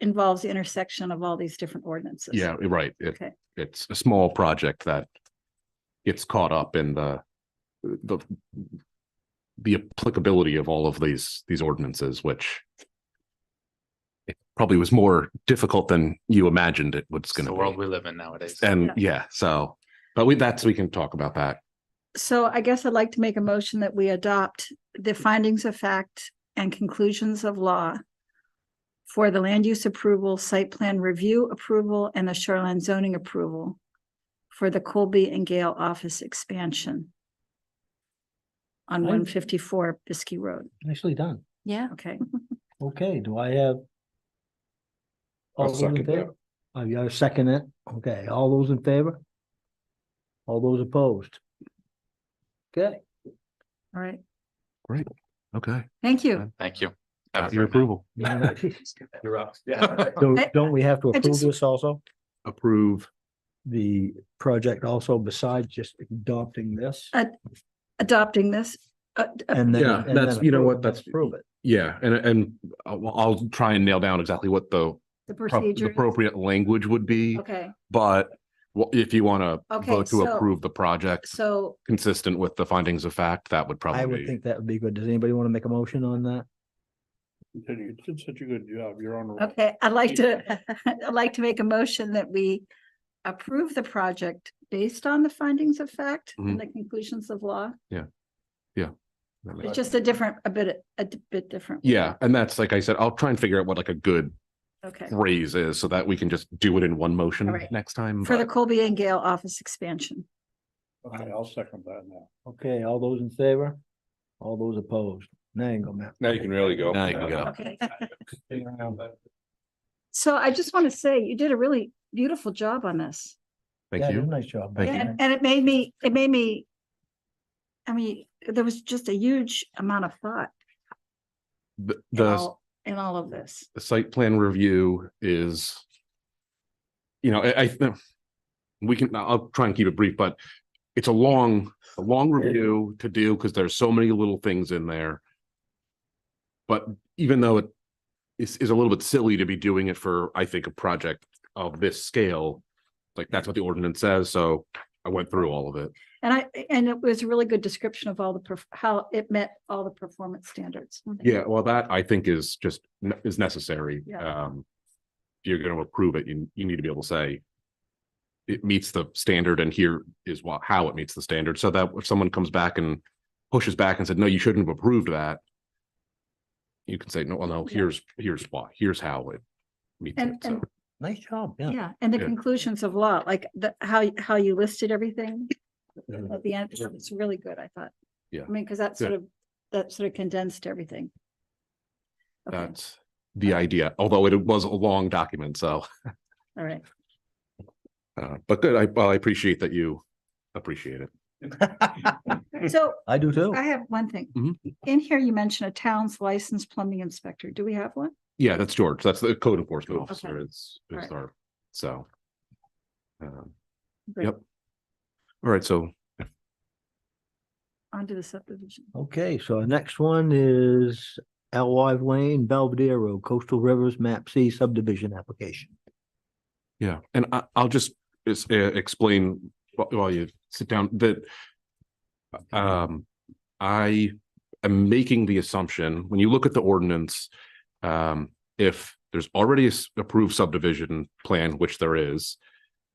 involves the intersection of all these different ordinances. Yeah, you're right. It, Okay. it's a small project that gets caught up in the, the, the applicability of all of these, these ordinances, which it probably was more difficult than you imagined it was It's the gonna world be. we live in nowadays. And yeah, so, but we, that's, we can talk about that. So I guess I'd like to make a motion that we adopt the findings of fact and conclusions of law for the land use approval, site plan review approval, and the shoreline zoning approval for the Colby and Gale office expansion on Aye. one fifty-four Biskie Road. Nicely done. Yeah, Okay, Okay, do I have? all those in second that. favor? Oh, you gotta second it? Okay, all those in favor? All those opposed? Okay, all right. Okay. Thank you. Thank you. Got Your approval. You're up. Yeah. don't, I- don't we have to I approve just- this also? Approve. The project also besides just adopting this? Uh, Adopting this, uh, uh, And then. Yeah, and then that's- you know approve- what, that's- Approve it. Yeah, and, and I'll, I'll try and nail down exactly what the the pro- procedure. appropriate language would be, Okay, but wha- if you want to Okay, vote to so- approve the project, so consistent with the findings of fact, that would I would probably be. think that would be good. Does anybody want to make a motion on that? Did you did such a good job. You're on the roll. Okay, I'd like to, I'd like to make a motion that we approve the project based on the findings of fact Mm-hmm. and the conclusions of law. that It's makes- just a different, a bit, a d- bit different. Yeah, and that's like I said, I'll try and figure out what like a good Okay, phrase is so that we can just do it in one motion All right. next time. for the but- Colby and Gale office expansion. Okay, I'll second that now. Okay, all those in favor? All those opposed? Now you go, Matt. Now you can really go. Now you can go. Okay, so I just want to say you did a really beautiful job on this. Thank Yeah, you. Nice job. Thank Matt. And, and it made me, it made me, I mean, there was just a huge amount of thought The- in The all, in all of this. the site plan review is. You know, I, I, think we can, I'll try and keep it brief, but it's a long, a long review to do because there's so many little things in there. But even though it is, is a little bit silly to be doing it for, I think, a project of this scale. Like that's what the ordinance says, so I went through all of it. And I, and it was a really good description of all the, perf- how it met all the performance standards. Yeah, well, that I think is just, ne- is necessary. Yeah. Um, if you're gonna approve it, you, you need to be able to say it meets the standard and here is what, how it meets the standard, so that if someone comes back and pushes back and said, no, you shouldn't have approved that, you can say, no, well, no, Yeah. here's, here's why, here's how it meets And- it, so, and- Nice job, yeah. Yeah, and the Yeah. conclusions of law, like the, how, y- how you listed everything Mhm. at the end, it's really good, I thought. Yeah. I mean, because that sort of, that sort of condensed everything. Okay, that's the idea, although it was a long document, so, all right. uh, but good, I, well, I appreciate that you appreciate it. So I do too. I have one thing. Mhm. In here, you mentioned a town's licensed plumbing inspector. Do we have one? Yeah, that's George. That's the code enforcement Okay. officer is, is Alright. our, so. um, Great. Yep. All right, so Onto the subdivision. Okay, so our next one is Alwive Lane, Belvedere Road, Coastal Rivers, Map C subdivision application. Yeah, and I, I'll just is- uh, explain wh- while you sit down that um, I am making the assumption, when you look at the ordinance, um, if there's already a s- approved subdivision plan, which there is,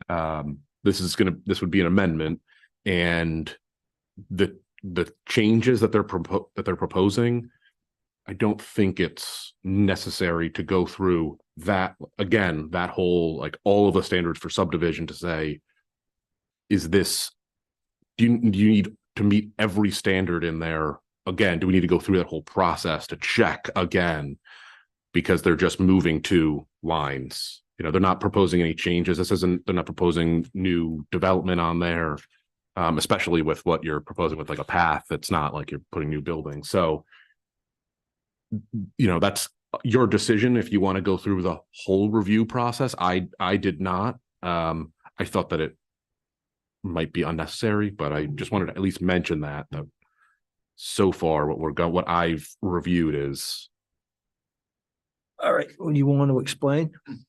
um, this is gonna, this would be an amendment and the, the changes that they're propo- that they're proposing, I don't think it's necessary to go through that, again, that whole, like, all of the standards for subdivision to say, is this, do you, do you need to meet every standard in there? Again, do we need to go through that whole process to check again? Because they're just moving two lines. You know, they're not proposing any changes. This isn't, they're not proposing new development on there. Um, especially with what you're proposing with like a path, it's not like you're putting new buildings. So you know, that's your decision if you want to go through the whole review process. I, I did not. Um, I thought that it might be unnecessary, but I just wanted to at least mention that, that so far what we're going, what I've reviewed is All right, well, you want to explain?